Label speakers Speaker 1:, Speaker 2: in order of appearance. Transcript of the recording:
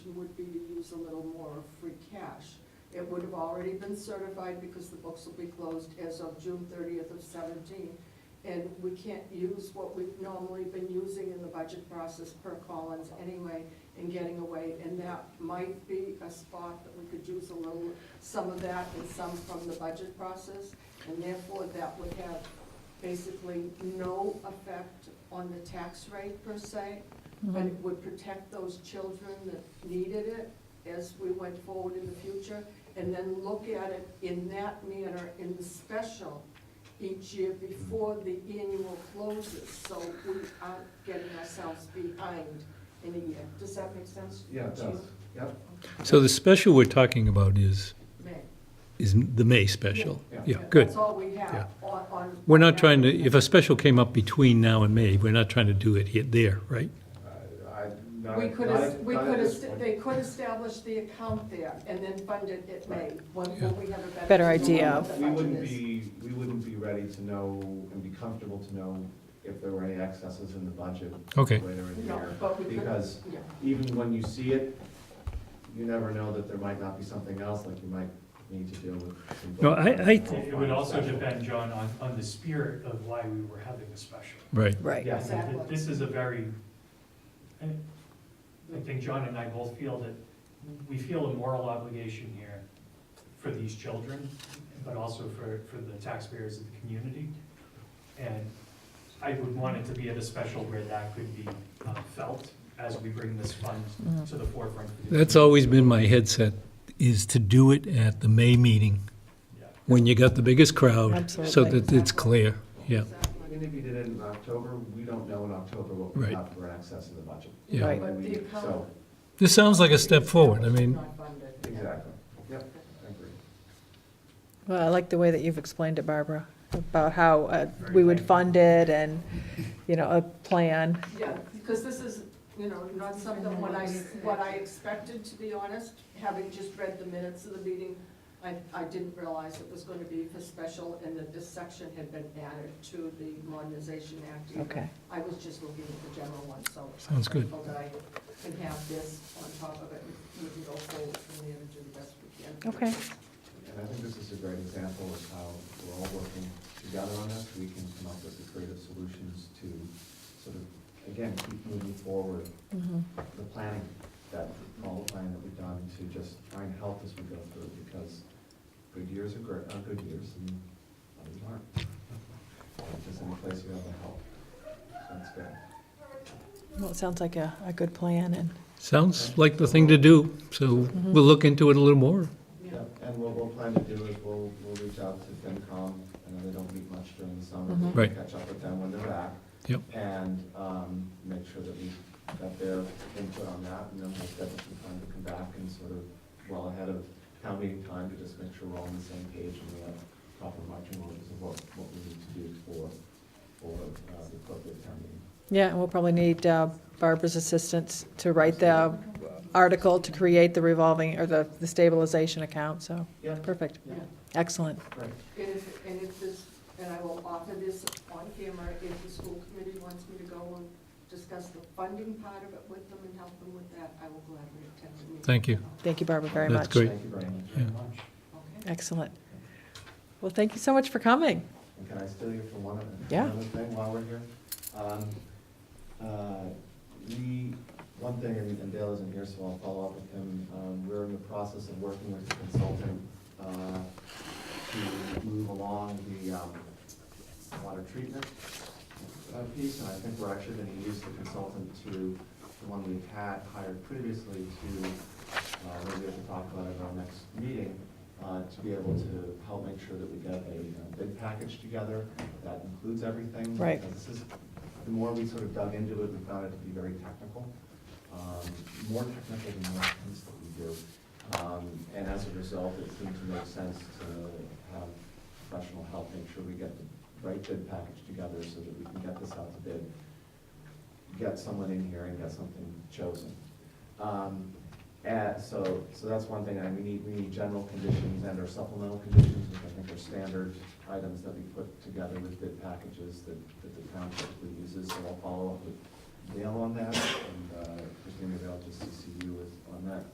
Speaker 1: use a little more of free cash. It would have already been certified because the books will be closed as of June thirtieth of seventeen. And we can't use what we've normally been using in the budget process per Collins anyway and getting away. And that might be a spot that we could use a little, some of that and some from the budget process. And therefore, that would have basically no effect on the tax rate per se, but it would protect those children that needed it as we went forward in the future, and then look at it in that manner in the special each year before the annual closes, so we aren't getting ourselves behind in a year. Does that make sense?
Speaker 2: Yeah, it
Speaker 1: to you?
Speaker 2: does, yep.
Speaker 3: So the special we're talking about is,
Speaker 1: May.
Speaker 3: is the May special?
Speaker 2: Yeah.
Speaker 3: Yeah, good.
Speaker 1: That's all we have
Speaker 3: Yeah.
Speaker 1: on, on.
Speaker 3: We're not trying to, if a special came up between now and May, we're not trying to do it here, there, right?
Speaker 2: I, not,
Speaker 1: We
Speaker 2: at-
Speaker 1: could,
Speaker 2: not
Speaker 1: es-
Speaker 2: at-
Speaker 1: we
Speaker 2: not at
Speaker 1: could,
Speaker 2: this
Speaker 1: est-
Speaker 2: point.
Speaker 1: they could establish the account there and then fund it at May, when when we have a better.
Speaker 4: Better
Speaker 1: view on
Speaker 4: idea
Speaker 1: what
Speaker 4: of-
Speaker 1: the
Speaker 2: We wouldn't
Speaker 1: budget is.
Speaker 2: be, we wouldn't be ready to know and be comfortable to know if there were any excesses in the budget.
Speaker 3: Okay.
Speaker 2: Later in the
Speaker 1: No,
Speaker 2: year,
Speaker 1: but we could-
Speaker 2: because
Speaker 1: Yeah.
Speaker 2: even when you see it, you never know that there might not be something else, like you might need to deal with. some-
Speaker 3: No, I- I-
Speaker 5: It it would also depend, John, on, on the spirit of why we were having a special.
Speaker 3: Right.
Speaker 4: Right.
Speaker 2: Yes,
Speaker 5: Th- th-
Speaker 1: Exactly.
Speaker 5: This is a very, I I think John and I both feel that we feel a moral obligation here for these children, but also for, for the taxpayers of the community. And I would want it to be at a special where that could be uh, felt as we bring this fund
Speaker 4: Mm-hmm.
Speaker 5: to the forefront. for the
Speaker 3: That's
Speaker 5: community.
Speaker 3: always been my headset, is to do it at the May meeting,
Speaker 5: Yeah.
Speaker 3: when you got the biggest crowd, so
Speaker 4: Absolutely.
Speaker 3: that it's clear. Yeah,
Speaker 1: Exactly.
Speaker 2: Even if you did it in October, we don't know in October what we
Speaker 3: Right.
Speaker 2: have for an excess in the budget.
Speaker 3: yeah.
Speaker 4: Right.
Speaker 1: But the account-
Speaker 2: So,
Speaker 3: This sounds like a step forward. I mean,
Speaker 1: Not funded, yeah.
Speaker 2: exactly, yep, I agree.
Speaker 4: Well, I like the way that you've explained it, Barbara, about how uh, we would fund it and, you know, a plan.
Speaker 1: Yeah, because this is, you know, not something what I, what I expected, to be honest, having just read the minutes of the meeting, I, I didn't realize it was gonna be for special and that this section had been added to the Modernization Act.
Speaker 4: Okay.
Speaker 1: I was just looking at the general one, so. I'm
Speaker 3: Sounds good.
Speaker 1: grateful that I can have this on top of it, and we can go forward from there and do the best we can.
Speaker 4: Okay.
Speaker 2: And I think this is a great example of how we're all working together on this. We can come up with the creative solutions to sort of, again, keep moving forward
Speaker 4: Mhm.
Speaker 2: the planning, that, all the planning that we've done to just try and help as we go through because good years are great, are good years and others aren't. If there's any place you have to help, so it's good.
Speaker 4: Well, it sounds like a, a good plan and,
Speaker 3: sounds like the thing to do, so we'll look into it a little more.
Speaker 1: Yeah.
Speaker 2: Yep, and what we'll plan to do is we'll, we'll reach out to FinCom, I know they don't meet much during the summer,
Speaker 4: Mhm.
Speaker 2: we'll
Speaker 3: Right.
Speaker 2: catch up with them when they're back.
Speaker 3: Yep.
Speaker 2: And, um, make sure that we've got their input on that, and then we'll schedule some time to come back and sort of, well ahead of town meeting time, to just make sure we're all on the same page and we have proper marching orders of what, what we need to do for, for, uh, the appropriate town meeting.
Speaker 4: yeah, and we'll probably need uh, Barbara's assistance to write the article to create the revolving, or the the stabilization account, so,
Speaker 2: Yep,
Speaker 4: perfect,
Speaker 2: yeah,
Speaker 4: excellent.
Speaker 2: great.
Speaker 1: And if, and if this, and I will offer this on camera, if the school committee wants me to go and discuss the funding part of it with them and help them with that, I will gladly attend the meeting.
Speaker 3: Thank you.
Speaker 4: Thank you, Barbara, very much.
Speaker 3: That's great.
Speaker 2: Thank you very much.
Speaker 3: Yeah.
Speaker 1: Okay.
Speaker 4: Excellent. Well, thank you so much for coming.
Speaker 2: And can I steal you for one other?
Speaker 4: Yeah.
Speaker 2: Another thing while we're here? Um, uh, We, one thing, and and Dale isn't here, so I'll follow up with him. Um, We're in the process of working with a consultant uh, to move along the um, water treatment uh, piece. And I think we're actually going to use the consultant to, the one we've had hired previously to, uh, maybe we can talk about it in our next meeting, uh, to be able to help make sure that we get a uh, big package together that includes everything.
Speaker 4: Right.
Speaker 2: Because This is, the more we sort of dug into it, we found it to be very technical, um, more technical than most things that we do. Um, And as a result, it seemed to make sense to have professional help make sure we get the right bid package together so that we can get this out to bid, get someone in here and get something chosen. Um, and so, so that's one thing, and we need, we need general conditions and our supplemental conditions, which I think are standard items that we put together with bid packages that, that the town typically uses, so I'll follow up with Dale on that, and, uh, Christina, maybe I'll just CC you with, on that